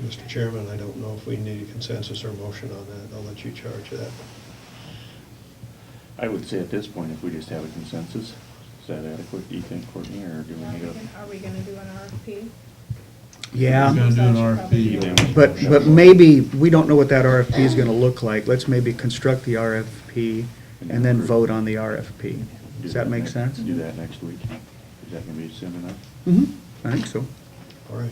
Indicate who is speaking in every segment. Speaker 1: Mr. Chairman, I don't know if we need a consensus or motion on that. I'll let you charge that.
Speaker 2: I would say at this point, if we just have a consensus, is that adequate, do you think, Courtney, or do we
Speaker 3: Are we
Speaker 2: need
Speaker 3: gonna-
Speaker 2: a?
Speaker 3: are we gonna do an RFP?
Speaker 4: Yeah.
Speaker 5: We're gonna do an
Speaker 2: You
Speaker 5: RFP.
Speaker 2: damage
Speaker 4: But,
Speaker 2: motion.
Speaker 4: but maybe, we don't know what that RFP is gonna look like. Let's maybe construct the RFP and then vote on the RFP.
Speaker 2: Do
Speaker 4: Does that make
Speaker 2: next-
Speaker 4: sense?
Speaker 2: Do that next week. Is that gonna be soon enough?
Speaker 4: hmm I think so.
Speaker 1: All right.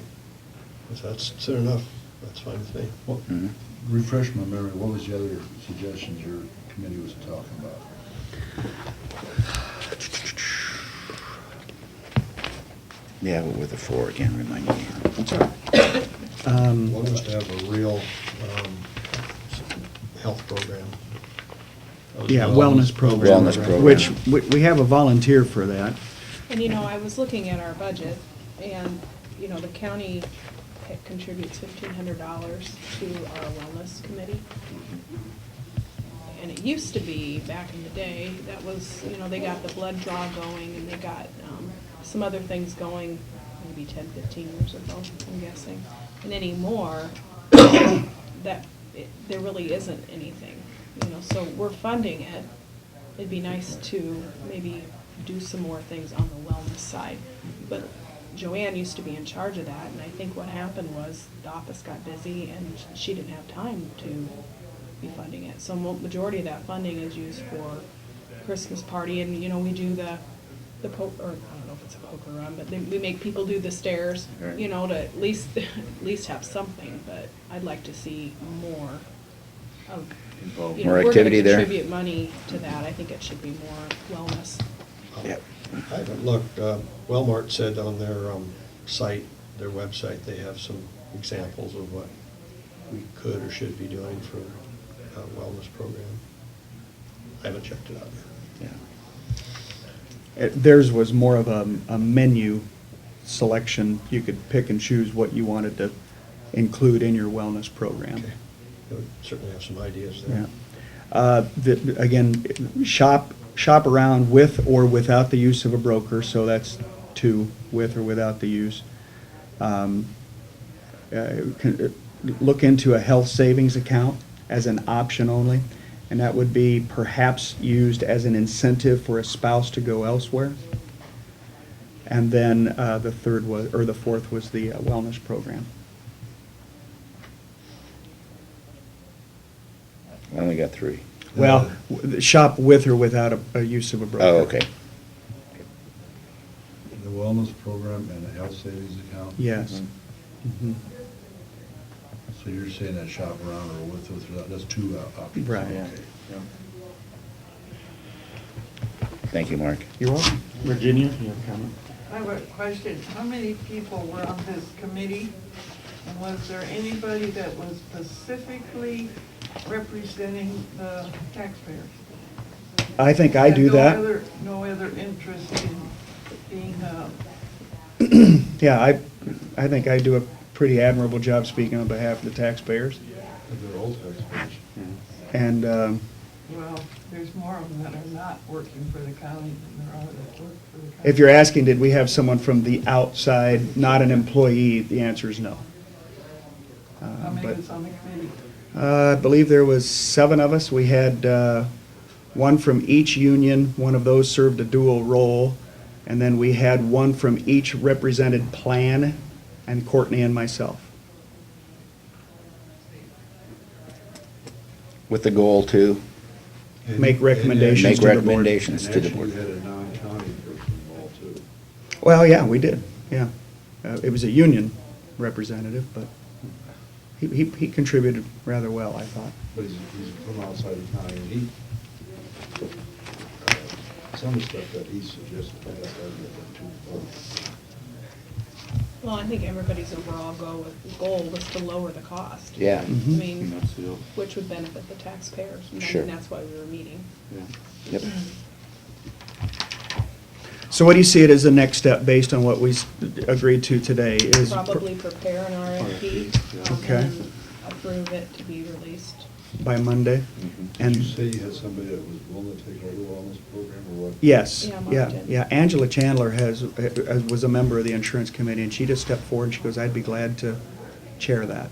Speaker 1: If that's soon enough, that's fine with me.
Speaker 5: What- Mm-hmm. Refresh my memory, what was the other suggestions your committee was talking about?
Speaker 6: Yeah, what were the four again, remind me?
Speaker 4: Um,
Speaker 1: One was to have a real um, health program.
Speaker 4: Yeah, wellness program.
Speaker 6: Wellness program.
Speaker 4: Which, we, we have a volunteer for that.
Speaker 3: And you know, I was looking at our budget, and, you know, the county ha- contributes fifteen hundred dollars to our wellness committee. And it used to be, back in the day, that was, you know, they got the blood draw going, and they got, um, some other things going, maybe 10, 15 years ago, I'm guessing. And anymore, that, it- there really isn't anything, you know, so we're funding it. It'd be nice to maybe do some more things on the wellness side. But Joanne used to be in charge of that, and I think what happened was the office got busy and she didn't have time to be funding it. So mo- majority of that funding is used for Christmas party, and, you know, we do the, the po, or, I don't know if it's a poker run, but then we make people do the stairs, you know, to at least, at least have something, but I'd like to see more of
Speaker 2: Involved.
Speaker 3: you know,
Speaker 6: More
Speaker 3: if we're
Speaker 6: activity
Speaker 3: gonna
Speaker 6: there?
Speaker 3: contribute money to that, I think it should be more wellness.
Speaker 6: Yep.
Speaker 1: I haven't looked, uh, Walmart said on their um, site, their website, they have some examples of what we could or should be doing for a wellness program. I haven't checked it out yet.
Speaker 6: Yeah.
Speaker 4: Uh, Theirs was more of a, a menu selection. You could pick and choose what you wanted to include in your wellness program.
Speaker 1: Okay. I would Certainly have some ideas
Speaker 4: Yeah.
Speaker 1: there.
Speaker 4: Uh, the- Again, shop, shop around with or without the use of a broker, so that's two, with or without the use. Um, uh, con- uh, Look into a health savings account as an option only, and that would be perhaps used as an incentive for a spouse to go elsewhere. And then uh, the third was, or the fourth was the uh, wellness program.
Speaker 6: Uh, I only got three.
Speaker 4: Well, w- shop with or without a, a use of a broker.
Speaker 6: Oh, okay.
Speaker 5: The wellness program and the health savings account?
Speaker 4: Yes. Mhm.
Speaker 5: Mm-hmm. So you're saying that shop around or with, with, without, that's two uh, options.
Speaker 4: Right.
Speaker 2: Yeah.
Speaker 5: Okay.
Speaker 2: Yeah.
Speaker 6: Thank you, Mark.
Speaker 4: You're welcome.
Speaker 2: Virginia, you have a comment?
Speaker 7: I have a question. How many people were on this committee? And was there anybody that was specifically representing the taxpayers?
Speaker 4: I think I do
Speaker 7: And no
Speaker 4: that.
Speaker 7: other- No other interest in being, uh,
Speaker 4: Yeah, I, I think I do a pretty admirable job speaking on behalf of the taxpayers.
Speaker 5: They're old taxpayers.
Speaker 4: And, um,
Speaker 7: well, there's more of them that are not working for the county than there are that work for the county.
Speaker 4: if you're asking, did we have someone from the outside, not an employee, the answer is no. Uh,
Speaker 7: How many
Speaker 4: but-
Speaker 7: was on the committee?
Speaker 4: Uh, I believe there was seven of us. We had uh, one from each union, one of those served a dual role, and then we had one from each represented plan, and Courtney and myself.
Speaker 6: With the goal to,
Speaker 4: Make
Speaker 5: And-
Speaker 4: recommendations to
Speaker 6: Make
Speaker 4: the board.
Speaker 5: And
Speaker 6: recommendations.
Speaker 5: actually, you had a non-county person involved too.
Speaker 4: Well, yeah, we did, yeah. Uh, It was a union representative, but he- he he contributed rather well, I thought.
Speaker 5: But he's, he's from outside the county, and he, uh, some of the stuff that he suggested, I guess, I'd get that too.
Speaker 3: Well, I think everybody's overall goal, was- goal was to lower the cost.
Speaker 6: yeah.
Speaker 3: I
Speaker 4: Mhm.
Speaker 2: And
Speaker 3: mean,
Speaker 2: that's the,
Speaker 3: which would benefit the taxpayers. and I
Speaker 6: Sure.
Speaker 3: think that's why we were meeting.
Speaker 2: yeah.
Speaker 6: Yep.
Speaker 4: So what do you see it as the next step, based on what we s- agreed to today? Is
Speaker 3: Probably prepare an
Speaker 2: yeah.
Speaker 3: RFP. um, and
Speaker 4: Okay.
Speaker 3: then Approve it to be released.
Speaker 4: By Monday?
Speaker 5: Mm-hmm. Did
Speaker 4: And
Speaker 5: you say you had somebody that was willing to take over the wellness program or what?
Speaker 4: Yes,
Speaker 3: Yeah, Mark
Speaker 4: yeah,
Speaker 3: did.
Speaker 4: yeah. Angela Chandler has, uh, was a member of the insurance committee, and she just stepped forward, and she goes, I'd be glad to chair that.